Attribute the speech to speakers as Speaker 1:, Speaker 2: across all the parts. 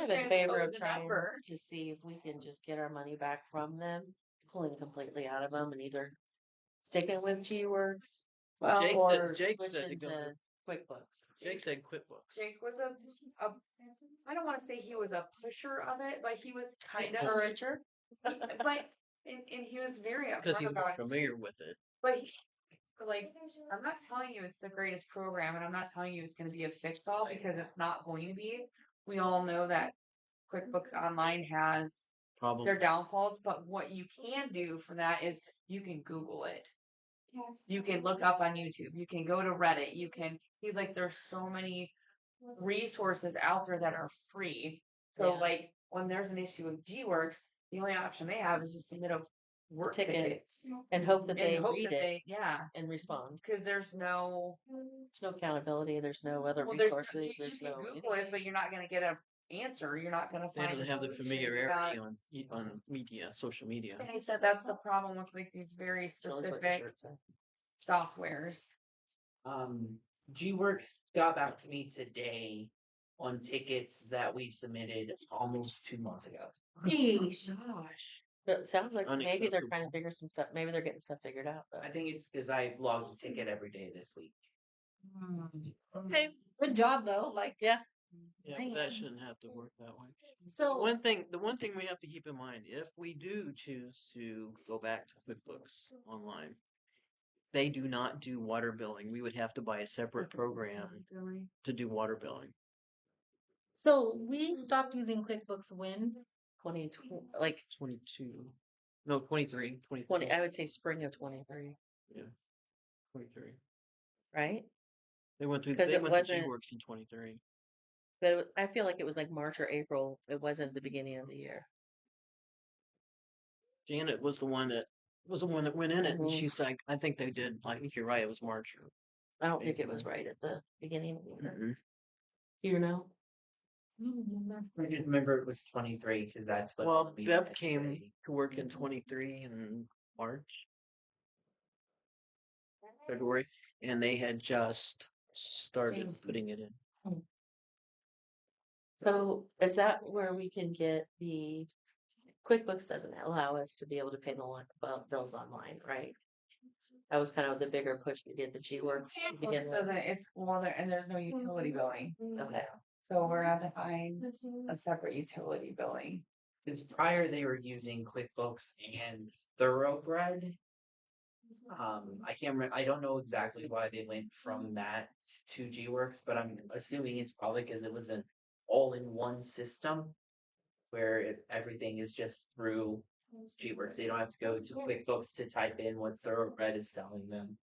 Speaker 1: in
Speaker 2: trying to
Speaker 1: favor
Speaker 2: lower
Speaker 1: of
Speaker 2: the
Speaker 1: trying
Speaker 2: number.
Speaker 1: to see if we can just get our money back from them, pulling completely out of them and either sticking with G Works.
Speaker 3: Well, Jake said-
Speaker 1: or
Speaker 3: Jake said to
Speaker 1: switching
Speaker 3: go
Speaker 1: to QuickBooks.
Speaker 3: Jake said QuickBooks.
Speaker 2: Jake was a, a, I don't want to say he was a pusher of it, but he was kind of,
Speaker 1: Encourager.
Speaker 2: but, and, and he was very
Speaker 3: Because
Speaker 2: upfront
Speaker 3: he's more
Speaker 2: about it.
Speaker 3: familiar with it.
Speaker 2: But he, like, I'm not telling you it's the greatest program, and I'm not telling you it's going to be a fix all because it's not going to be. We all know that QuickBooks Online has
Speaker 3: Probably.
Speaker 2: their downfalls, but what you can do for that is you can Google it. You can look up on YouTube. You can go to Reddit. You can. He's like, there's so many resources out there that are free. So
Speaker 1: Yeah.
Speaker 2: like, when there's an issue with G Works, the only option they have is to submit a work
Speaker 1: Ticket.
Speaker 2: ticket,
Speaker 1: And hope that
Speaker 2: and
Speaker 1: they
Speaker 2: hope
Speaker 1: read
Speaker 2: that
Speaker 1: it
Speaker 2: they yeah
Speaker 1: and respond.
Speaker 2: because there's no
Speaker 1: There's no accountability, there's no other
Speaker 2: well, there's-
Speaker 1: resources,
Speaker 2: You,
Speaker 1: there's
Speaker 2: you
Speaker 1: no.
Speaker 2: can Google it, but you're not going to get a answer. You're not going to
Speaker 3: They
Speaker 2: find.
Speaker 3: don't
Speaker 2: a
Speaker 3: have the
Speaker 2: solution
Speaker 3: familiarity
Speaker 2: without-
Speaker 3: on e, on media, social media.
Speaker 2: And I said that's the problem with like these very
Speaker 1: Knows what your
Speaker 2: specific
Speaker 1: shirt's in.
Speaker 2: softwares.
Speaker 4: Um, G-Works got back to me today on tickets that we submitted almost two months ago.
Speaker 1: But it sounds like maybe they're trying to
Speaker 3: Unacceptable.
Speaker 1: figure some stuff, maybe they're getting stuff figured out though.
Speaker 4: I think it's because I logged a ticket every day this week.
Speaker 1: Okay.
Speaker 2: Good job though. Like
Speaker 3: Yeah,
Speaker 2: Dang.
Speaker 3: but that shouldn't have to work that way.
Speaker 2: so.
Speaker 3: One thing, the one thing we have to keep in mind, if we do choose to go back to QuickBooks Online, they do not do water billing. We would have to buy a separate program to do water billing.
Speaker 5: So we stopped using QuickBooks when?
Speaker 1: Twenty, tw- like
Speaker 3: Twenty-two, no, twenty-three, twenty-four,
Speaker 1: twenty, I would say spring of twenty-three,
Speaker 3: twenty-three.
Speaker 1: right?
Speaker 3: They went through,
Speaker 1: 'Cause
Speaker 3: they
Speaker 1: it
Speaker 3: went to
Speaker 1: wasn't-
Speaker 3: G-Works in twenty-three.
Speaker 1: But it wa- I feel like it was like March or April. It wasn't the beginning of the year.
Speaker 3: Janet was the one that, was the one that went in it and
Speaker 1: Mhm.
Speaker 3: she's like, I think they did, I think you're right, it was March.
Speaker 1: I don't think it was
Speaker 3: April.
Speaker 1: right at the beginning of the year. Mm-hmm.
Speaker 3: or
Speaker 1: You know?
Speaker 4: I didn't remember it was twenty-three because that's what.
Speaker 3: Well,
Speaker 4: we
Speaker 3: Deb
Speaker 4: had
Speaker 3: came
Speaker 4: today.
Speaker 3: to work in
Speaker 4: Mhm.
Speaker 3: twenty-three in March, February, and they had just started
Speaker 1: Changed.
Speaker 3: putting it in.
Speaker 1: So is that where we can get the, QuickBooks doesn't allow us to be able to pay the li- bu- bills online, right? That was kind of the bigger push to get the G Works to begin
Speaker 2: This
Speaker 1: with.
Speaker 2: doesn't, it's, well, there, and there's no utility
Speaker 4: Mm-hmm.
Speaker 2: billing,
Speaker 1: Okay,
Speaker 2: so we're gonna find a separate utility billing.
Speaker 4: Because prior they were using QuickBooks and Thoroughbred. Um, I can't remember, I don't know exactly why they went from that to G-Works, but I'm assuming it's probably because it was an all-in-one system. Where it, everything is just through G-Works, they don't have to go to QuickBooks to type in what Thoroughbred is telling them,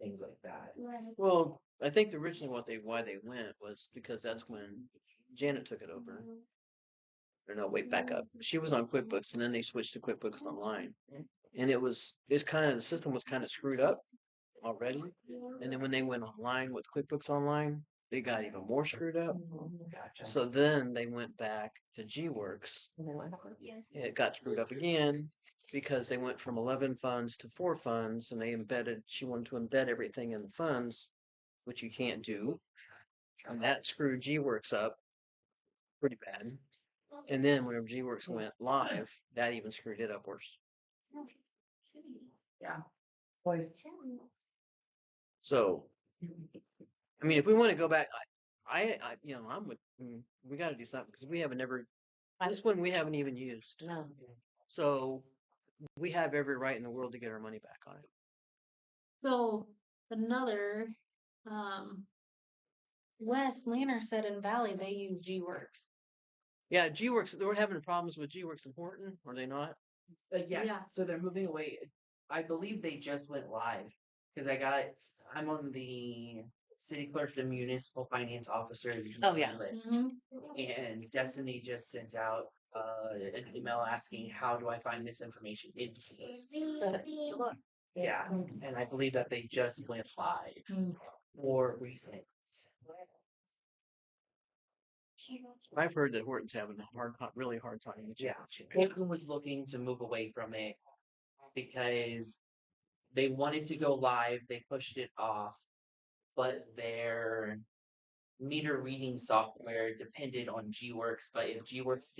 Speaker 4: things like that. It's-
Speaker 3: Well, I think originally what they, why they went was because that's when Janet took it over. Or no, wait, back up. She was on QuickBooks and then they switched to QuickBooks Online. And it was, it's kind of, the system was kind of screwed up already. And then when they went online with QuickBooks Online, they got even more screwed up.
Speaker 2: Mm-hmm.
Speaker 4: Gotcha.
Speaker 3: So then they went back to G Works.
Speaker 1: and then what happened?
Speaker 3: It got screwed up again because they went from 11 funds to four funds and they embedded, she wanted to embed everything in the funds, which you can't do. And that screwed G Works up pretty bad. And then whenever G Works went live, that even screwed it up worse.
Speaker 2: Yeah. Boys,
Speaker 3: So, I mean, if we want to go back, I, I, I you know, I'm with, mm, we got to do something because we haven't ever,
Speaker 1: I-
Speaker 3: this one we haven't even used.
Speaker 1: No,
Speaker 3: So we have every right in the world to get our money back on it.
Speaker 5: So another, um, Wes Lanner said in Valley they use G-Works.
Speaker 3: Yeah, G Works, they were having problems with G Works in Horton, are they not?
Speaker 4: Uh, yes.
Speaker 5: Yeah.
Speaker 4: So they're moving away. I believe they just went live because I got. I'm on the city clerks and municipal finance officers.
Speaker 1: Oh, yeah.
Speaker 4: List, and Destiny just sent out uh, an email asking, "How do I find this information in G-Works?"
Speaker 3: uh,
Speaker 4: Yeah, and I believe that they just went live
Speaker 5: Hmm.
Speaker 4: for recent.
Speaker 3: I've heard that Horton's having a hard, ti- really hard time with G
Speaker 4: Yeah.
Speaker 3: Works.
Speaker 4: Portland was looking to move away from it because they wanted to go live. They pushed it off, but their
Speaker 2: meter reading software depended on GWorks, but if GWorks